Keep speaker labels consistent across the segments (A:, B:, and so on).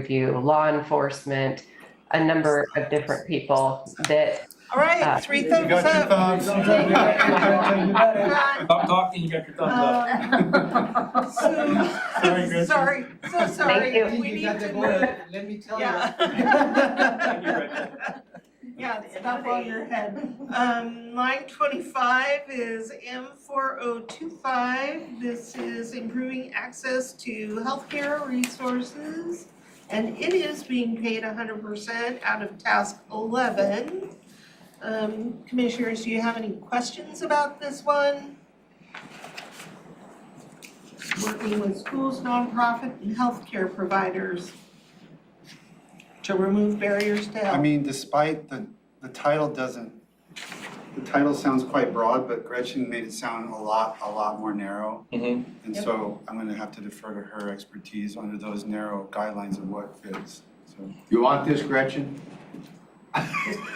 A: review, law enforcement, a number of different people that,
B: All
A: Uh,
B: right, three
C: You
B: thumbs
C: got your
B: up.
C: thumbs.
B: Uh,
D: Stop talking, you got your thumbs up.
C: Sorry,
B: So,
C: Gretchen.
B: sorry, so
A: you.
B: sorry. We
E: You
B: need
E: got the
B: to know.
E: word, let me tell you.
B: Yeah.
D: Thank you, Gretchen.
B: Yeah, it's not on your head. Um, line twenty-five is M four oh two five. This is improving access to healthcare resources. And it is being paid hundred percent out of task eleven. Um, commissioners, do you have any questions about this one? Working with schools, nonprofit and healthcare providers to remove barriers to
C: I
B: health.
C: mean, despite the, the title doesn't, the title sounds quite broad, but Gretchen made it sound a lot, a lot more narrow.
D: Mhm.
C: And
B: Yep.
C: so I'm gonna have to defer to her expertise under those narrow guidelines of what fits, so.
F: You want this, Gretchen?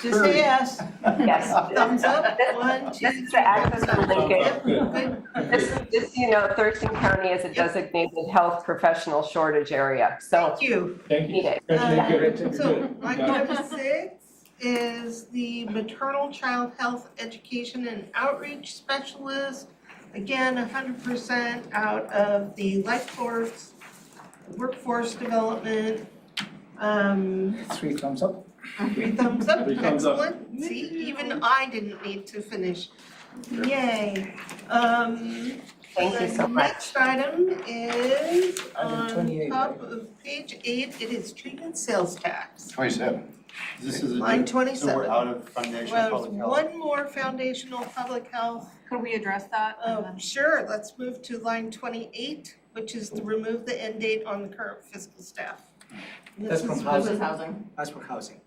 B: Just say yes.
A: yes.
B: Thumbs up, one, two,
A: This is
B: three.
A: the access to
D: Thumbs
A: Lincoln.
D: up, good.
B: Good.
A: This is, just, so you know, Thurston County is a designated health professional shortage area, so
B: Thank you.
D: Thank you.
A: need it.
G: Uh,
D: Gretchen, you're good. You're
B: So
D: good.
B: line number six is the maternal child health education and outreach specialist. Again, hundred percent out of the life force, workforce development. Um,
E: Three thumbs up.
B: three thumbs up,
D: Three thumbs up.
B: excellent. See, even I didn't need to finish. Yay. Um,
A: Thank you so
B: The
A: much.
B: next item is on
E: 128,
B: top of page eight, it is treatment sales tax.
F: Twenty-seven.
C: This is a.
B: Line
C: So we're
B: twenty-seven.
C: out of foundation
B: Well,
C: public health.
B: one more foundational public health.
G: Could we address that? and
B: Oh, sure, let's move to line twenty-eight, which is to remove the end date on the current fiscal staff. And this
E: That's from
B: is-
E: housing.
G: then- housing.
E: That's for housing.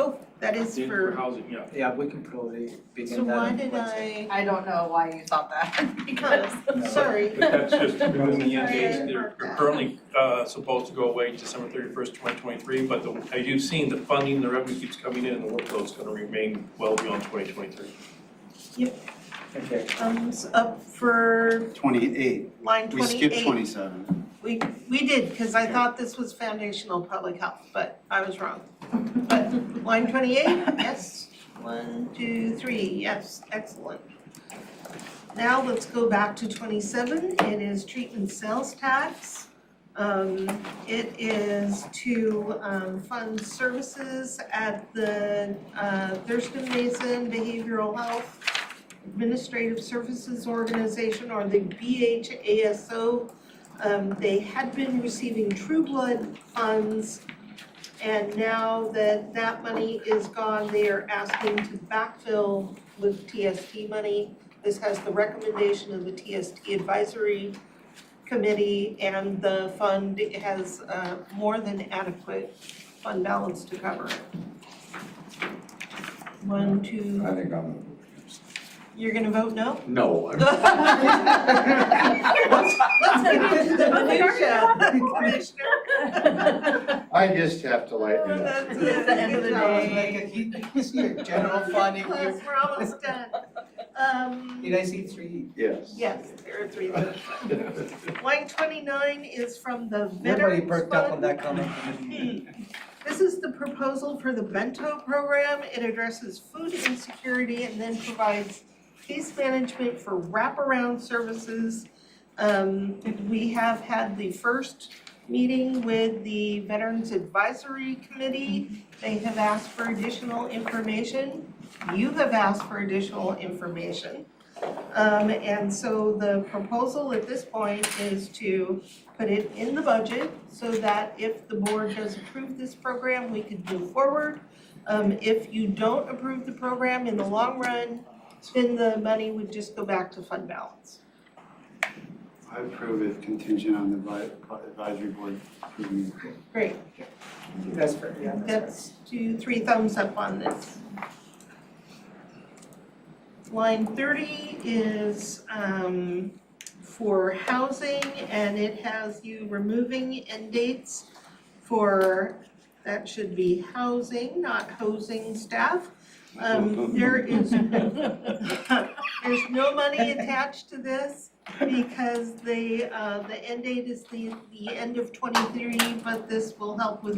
B: Oh, that is
D: Dude, For
B: for,
D: housing, yeah.
E: Yeah, we can probably
B: so
E: begin that
B: why
E: on
B: did
E: Wednesday.
B: I,
G: I don't know why you thought that, because.
B: sorry.
D: But that's just removing the end
B: Sorry, I
D: dates,
B: didn't
D: they're
B: mark
D: they're
B: that.
D: currently uh, supposed to go away December thirty-first, twenty twenty-three, but the- as you've seen, the funding, the revenue keeps coming in, and the workload's gonna remain well beyond twenty twenty-three.
E: Okay.
B: Thumbs up for
C: Twenty-eight,
B: line
C: we
B: twenty-eight.
C: skipped twenty-seven.
B: We, we did, because I
C: Okay.
B: thought this was foundational public health, but I was wrong. But line twenty-eight, yes, one, two, three, yes, excellent. Now let's go back to twenty-seven, it is treatment sales tax. Um, it is to, um, fund services at the, uh, Thurston Mason Behavioral Health Administrative Services Organization, or the BHASO um, they had been receiving True Blood funds, and now that that money is gone, they are asking to backfill with TST money. This has the recommendation of the TST Advisory Committee, and the fund has uh, more than adequate fund balance to cover it. One, two,
F: I think I'm.
B: you're gonna vote no?
F: No, I'm.
B: Let's get into the minutia, Commissioner.
F: I just have to lighten
B: Oh,
F: it up.
B: that's
G: It's the end of the
B: good
G: day.
B: job.
E: Like, he- he's here, general funding,
B: Class,
E: you-
B: we're almost done. Um,
E: did I see three?
F: Yes.
B: yes, there are three left. Line twenty-nine is from the
E: Everybody
B: Veterans
E: perked up on
B: Fund.
E: that comment.
B: This is the proposal for the Bento program. It addresses food insecurity and then provides case management for wraparound services. Um, we have had the first meeting with the Veterans Advisory Committee. They have asked for additional information. You have asked for additional information. Um, and so the proposal at this point is to put it in the budget so that if the board does approve this program, we can move forward. Um, if you don't approve the program in the long run, then the money would just go back to fund balance.
C: I approve it contingent on the advi- advisory board approving.
B: Great,
E: That's fair, yeah, that's fair.
B: that's two, three thumbs up on this. Line thirty is, um, for housing and it has you removing end dates for, that should be housing, not hosing staff. Um, there is, there's no money attached to this. because the, uh, the end date is the, the end of twenty-three, but this will help with